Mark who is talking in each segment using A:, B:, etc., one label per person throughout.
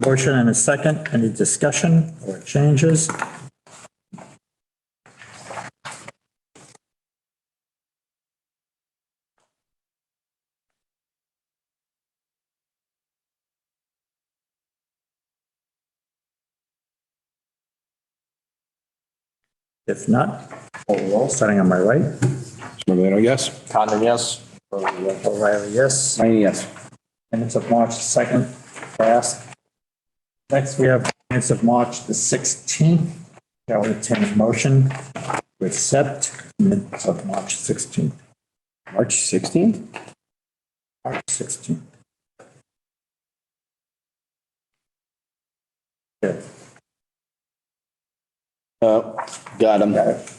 A: Motion and a second. Any discussion or changes? If not, call the roll, starting on my right.
B: Moreno, yes?
C: Condon, yes.
A: O'Reilly, yes.
B: Mayne, yes.
A: Minutes of March 2nd, passed. Next, we have minutes of March the 16th. Shall entertain a motion to accept minutes of March 16th,
B: March 16th?
A: March 16th. Good.
B: Oh, got him. Got it.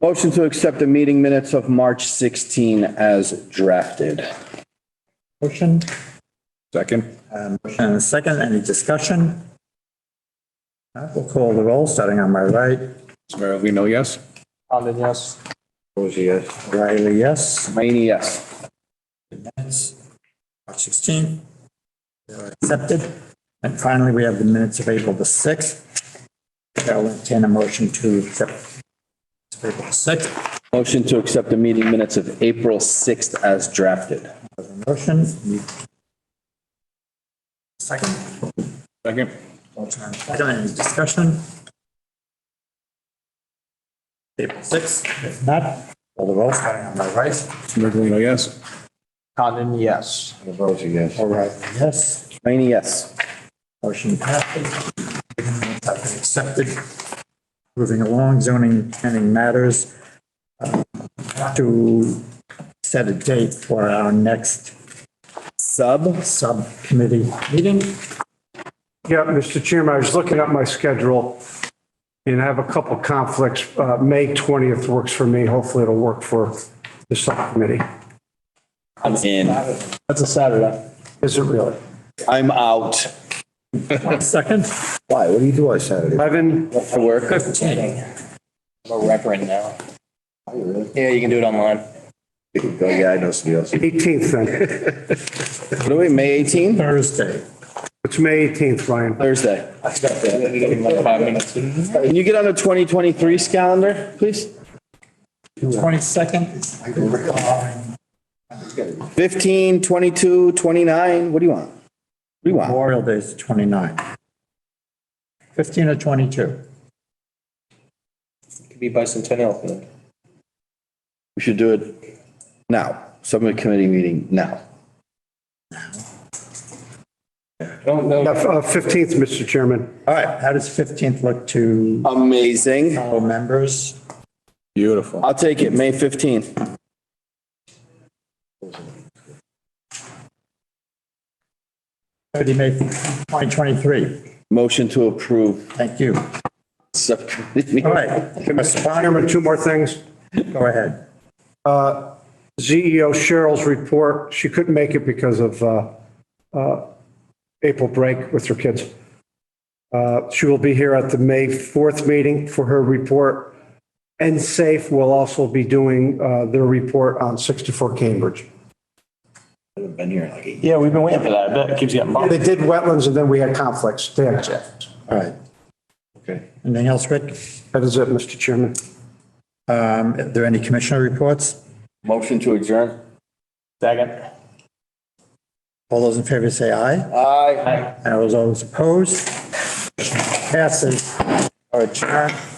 B: Motion to accept the meeting minutes of March 16 as drafted.
A: Motion,
B: Second.
A: uh, motion and a second. Any discussion? I will call the roll, starting on my right.
B: Moreno, yes?
C: Condon, yes.
B: Bojei, yes.
A: O'Reilly, yes.
B: Mayne, yes.
A: minutes, March 16. They are accepted. And finally, we have the minutes of April the 6th. I'll entertain a motion to accept minutes of April the 6th.
B: Motion to accept the meeting minutes of April 6th as drafted.
A: Motion. Second.
B: Second.
A: Motion and Second, any discussion? April 6th, if not, all the roll starting on my right.
B: Moreno, yes?
C: Condon, yes.
B: Bojei, yes.
A: All right, yes.
B: Mayne, yes.
A: Motion passes. Have been accepted. Moving along, zoning planning matters. Uh, have To set a date for our next
B: Sub?
A: subcommittee meeting.
D: Yeah, Mr. Chairman, I was looking at my schedule and I have a couple conflicts. Uh, May 20th works for me. Hopefully it'll work for the subcommittee.
B: I'm in. That's a Saturday.
D: Is it really?
B: I'm out.
A: Second,
B: Why? What do you do on Saturday?
D: 11,
B: I work.
C: I'm a rep right now. Yeah, you can do it online.
B: Oh, yeah, I know somebody else.
D: 18th then.
B: What are we, May 18th?
A: Thursday.
D: It's May 18th, Ryan.
B: Thursday.
C: Five minutes.
B: Can you get on the 2023 calendar, please?
A: 22nd,
B: 15, 22, 29, what do you want? What do you want?
A: Memorial Day is 29. 15 or 22?
C: Could be bicentennial.
B: We should do it now, subcommittee meeting now.
C: No,
D: Uh,
C: no.
D: uh, 15th, Mr. Chairman.
A: All right, how does 15th look to
B: Amazing.
A: all members?
B: I'll take it, May 15th.
A: Thirty May 2023.
B: Motion to approve
A: Thank you.
B: subcommittee
A: All
B: meeting.
A: right. Mr. Bonner,
D: Chairman, two more things.
A: go ahead.
D: CEO E Cheryl's report, she couldn't make it because of uh, uh, April break with her kids. Uh, She will be here at the May 4th meeting for her report. And SAFE will also be doing uh, their report on 64 Cambridge.
C: Yeah, we've been waiting for that. I bet it keeps getting bumped.
D: They did wetlands and then we had conflicts. They had-
A: All right. Okay. Anything else, Rick?
D: That is it, Mr. Chairman.
A: Um, Are there any commissioner reports?
B: Motion to adjourn.
C: Second.
A: All those in favor say aye.
B: Aye.
A: And all those opposed? Passes. Or adjourned.